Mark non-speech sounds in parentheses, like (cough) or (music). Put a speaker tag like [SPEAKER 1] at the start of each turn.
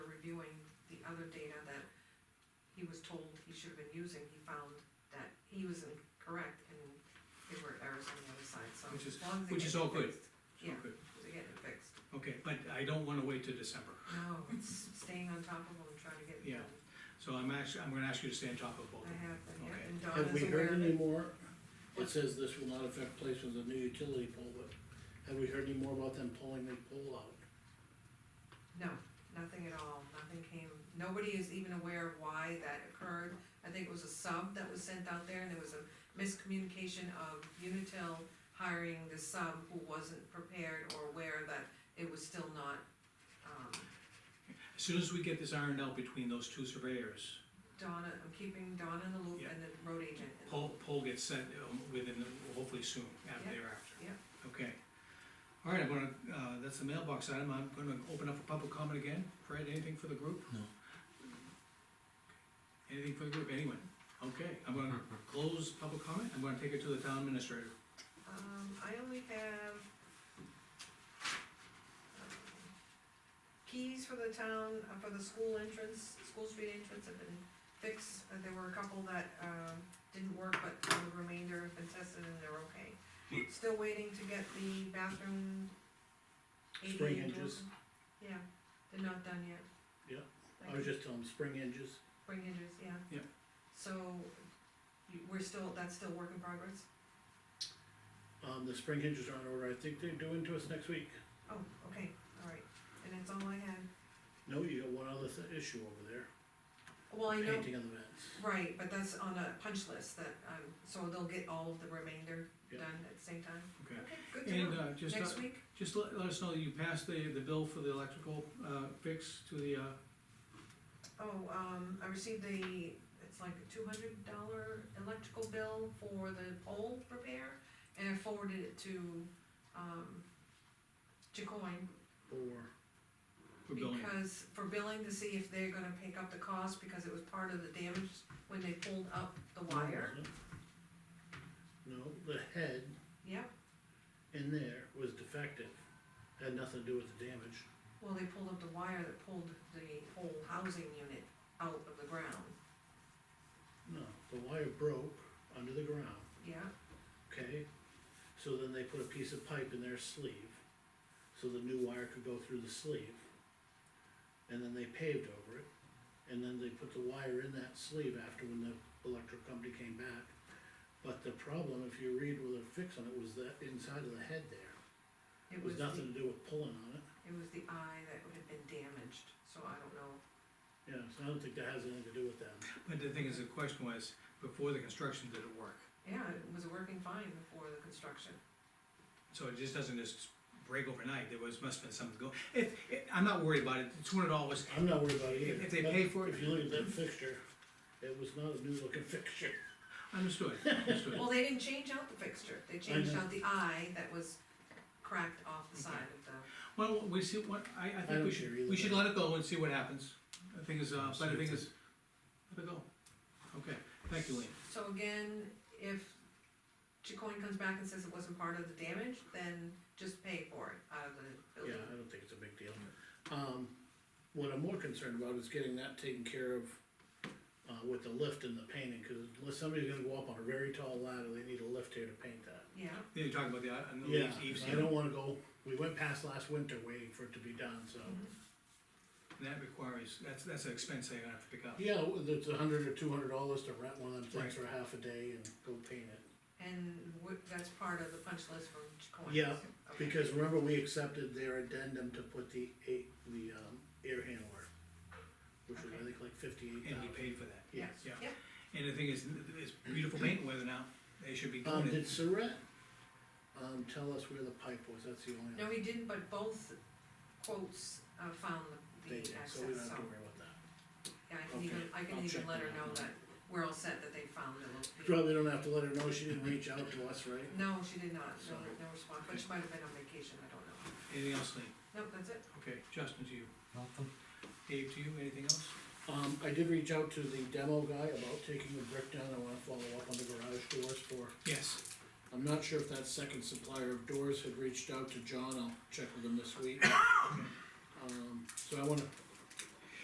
[SPEAKER 1] other data that he was told he should have been using, he found that he was incorrect and there were errors on the other side, so.
[SPEAKER 2] Which is-
[SPEAKER 1] as long as they
[SPEAKER 2] which
[SPEAKER 1] get
[SPEAKER 2] is
[SPEAKER 1] it
[SPEAKER 2] all good.
[SPEAKER 1] fixed. Yeah,
[SPEAKER 2] Okay.
[SPEAKER 1] they get it fixed.
[SPEAKER 2] Okay, but I don't wanna wait till December,
[SPEAKER 1] No, it's staying on top of them, trying to get it
[SPEAKER 2] Yeah.
[SPEAKER 1] done.
[SPEAKER 2] so I'm actually, I'm gonna ask you to stay on top of both of
[SPEAKER 1] I
[SPEAKER 2] them.
[SPEAKER 1] have, them, yeah,
[SPEAKER 2] Okay.
[SPEAKER 1] and
[SPEAKER 3] Have we
[SPEAKER 1] Donna's aware
[SPEAKER 3] heard
[SPEAKER 1] of
[SPEAKER 3] any
[SPEAKER 1] it.
[SPEAKER 3] more? It says this will not affect placement of the new utility pole, but have we heard any more about them pulling the pole out?
[SPEAKER 1] No, nothing at all, nothing came, nobody is even aware of why that occurred. I think it was a sub that was sent out there, and there was a miscommunication of Unitil hiring the sub who wasn't prepared or aware that it was still not, um,
[SPEAKER 2] As soon as we get this ironed out between those two surveyors,
[SPEAKER 1] Donna, I'm keeping Donna in the loop and the road agent. in the
[SPEAKER 2] poll,
[SPEAKER 1] loop.
[SPEAKER 2] poll gets set um, within, the- hopefully soon, after
[SPEAKER 1] Yeah,
[SPEAKER 2] thereafter.
[SPEAKER 1] yeah.
[SPEAKER 2] Okay. All right, I'm gonna, uh, that's the mailbox item, I'm gonna open up for public comment again, Fred, anything for the group?
[SPEAKER 3] No.
[SPEAKER 2] Anything for the group, anyone? Okay, I'm gonna close public comment, I'm gonna take it to the town administrator.
[SPEAKER 1] Um, I only have um, keys for the town, uh, for the school entrance, school street entrance have been fixed. Uh, There were a couple that, um, didn't work, but the remainder have been tested and they're okay. Still waiting to get the bathroom. ADA
[SPEAKER 3] Spring hinges.
[SPEAKER 1] doors. Yeah, they're not done yet.
[SPEAKER 3] Yeah,
[SPEAKER 1] Like-
[SPEAKER 3] I was just telling them, spring hinges,
[SPEAKER 1] Spring hinges, yeah.
[SPEAKER 2] Yep.
[SPEAKER 1] So, you- we're still, that's still work in progress?
[SPEAKER 3] um, the spring hinges are on order, I think they're doing to us next week.
[SPEAKER 1] Oh, okay, all right, and that's all I had.
[SPEAKER 3] No, you got one other thi- issue over there,
[SPEAKER 1] Well, I know,
[SPEAKER 3] painting of the vents.
[SPEAKER 1] right, but that's on a punch list that, um, so they'll get all of the remainder
[SPEAKER 3] Yeah.
[SPEAKER 1] done at the same time.
[SPEAKER 2] Okay.
[SPEAKER 1] Okay, good to
[SPEAKER 2] And,
[SPEAKER 1] know.
[SPEAKER 2] uh, just, uh,
[SPEAKER 1] Next week?
[SPEAKER 2] just let, let us know that you passed the, the bill for the electrical, uh, fix to the, uh,
[SPEAKER 1] Oh, um, I received the, it's like a two hundred dollar electrical bill for the pole repair, and I forwarded it to, um, Jacoin,
[SPEAKER 3] Or,
[SPEAKER 2] for building.
[SPEAKER 1] because, for billing to see if they're gonna pick up the cost, because it was part of the damage when they pulled up
[SPEAKER 3] Oh.
[SPEAKER 1] the wire.
[SPEAKER 3] No, the head
[SPEAKER 1] Yep,
[SPEAKER 3] in there was defective, had nothing to do with the damage.
[SPEAKER 1] Well, they pulled up the wire that pulled the whole housing unit out of the ground,
[SPEAKER 3] No, the wire broke under the ground,
[SPEAKER 1] yeah?
[SPEAKER 3] okay? So then they put a piece of pipe in their sleeve, so the new wire could go through the sleeve. And then they paved over it, and then they put the wire in that sleeve after when the electric company came back. But the problem, if you read with a fix on it, was that inside of the head there, it was
[SPEAKER 1] the-
[SPEAKER 3] nothing to do with pulling on it.
[SPEAKER 1] It was the eye that would have been damaged, so I don't know.
[SPEAKER 3] Yeah, so I don't think that has anything to do with them.
[SPEAKER 2] But the thing is, the question was, before the construction, did it work?
[SPEAKER 1] Yeah, it was working fine before the construction.
[SPEAKER 2] So it just doesn't just break overnight, there was, must've been something go, if, if- I'm not worried about it, two hundred dollars,
[SPEAKER 3] I'm not worried about it either.
[SPEAKER 2] If- if they
[SPEAKER 3] but
[SPEAKER 2] pay for it-
[SPEAKER 3] If you look at that fixture, it was not a new looking (laughs) fixture.
[SPEAKER 2] understood, understood.
[SPEAKER 1] Well, they didn't change out the fixture, they changed
[SPEAKER 3] know.
[SPEAKER 1] out the eye that was cracked off the side of the,
[SPEAKER 2] (laughs) Well, we see, what, I, I
[SPEAKER 3] I
[SPEAKER 2] think
[SPEAKER 3] don't
[SPEAKER 2] we
[SPEAKER 3] care
[SPEAKER 2] should,
[SPEAKER 3] either
[SPEAKER 2] we should
[SPEAKER 3] way.
[SPEAKER 2] let it go and see what happens, the thing is, uh, but the thing
[SPEAKER 4] Absolutely.
[SPEAKER 2] is, let it go. Okay, thank you, Lean,
[SPEAKER 1] so again, if Chicoine comes back and says it wasn't part of the damage, then just pay for it out of the
[SPEAKER 3] Yeah,
[SPEAKER 1] building.
[SPEAKER 3] I don't think it's a big deal. Um, what I'm more concerned about is getting that taken care of, uh, with the lift and the painting, cause unless somebody's gonna go up on a very tall ladder, they need a lift here to paint that.
[SPEAKER 1] Yeah,
[SPEAKER 2] you're talking about the, uh, and the
[SPEAKER 3] Yeah,
[SPEAKER 2] leaves, eaves,
[SPEAKER 3] I
[SPEAKER 2] and
[SPEAKER 3] don't wanna go, we went past last winter waiting for it to be done, so.
[SPEAKER 2] Mm-hmm. that requires, that's, that's an expense they're gonna have to pick up.
[SPEAKER 3] Yeah, well, it's a hundred or two hundred dollars to rent one of them
[SPEAKER 2] Right.
[SPEAKER 3] things for half a day and go paint it.
[SPEAKER 1] and wh- that's part of the punch list from Chicoine.
[SPEAKER 3] Yeah, Because remember, we accepted their addendum to put the eight, the, um, air handler, which was, I think, like
[SPEAKER 2] And
[SPEAKER 3] fifty-eight
[SPEAKER 2] he
[SPEAKER 3] thousand.
[SPEAKER 2] paid for that,
[SPEAKER 3] Yes.
[SPEAKER 2] yeah.
[SPEAKER 1] Yeah.
[SPEAKER 2] And the thing is, it's beautiful painting weather now, they should be
[SPEAKER 3] Um,
[SPEAKER 2] doing
[SPEAKER 3] did
[SPEAKER 2] it,
[SPEAKER 3] Saret, um, tell us where the pipe was, that's the only.
[SPEAKER 1] No, he didn't, but both quotes uh, found the
[SPEAKER 3] They did,
[SPEAKER 1] access,
[SPEAKER 3] so
[SPEAKER 1] so,
[SPEAKER 3] we don't have to worry about that.
[SPEAKER 1] yeah, I can even,
[SPEAKER 3] Okay,
[SPEAKER 1] I can
[SPEAKER 3] I'll
[SPEAKER 1] even
[SPEAKER 3] check
[SPEAKER 1] let her
[SPEAKER 3] that
[SPEAKER 1] know
[SPEAKER 3] out.
[SPEAKER 1] that we're all set, that they found the location.
[SPEAKER 3] Probably don't have to let her know, she didn't reach out to us, right?
[SPEAKER 1] No, she did not, no,
[SPEAKER 3] Sorry.
[SPEAKER 1] no response, but she might have been on vacation, I don't know.
[SPEAKER 2] anything else, Lean?
[SPEAKER 1] Nope, that's it.
[SPEAKER 2] Okay, Justin to you,
[SPEAKER 4] Nothing.
[SPEAKER 2] Dave to you, anything else?
[SPEAKER 3] Um, I did reach out to the demo guy about taking the brick down, I wanna follow up on the garage doors for
[SPEAKER 2] Yes.
[SPEAKER 3] I'm not sure if that second supplier of doors had reached out to John, I'll check with him this week. Um, so I wanna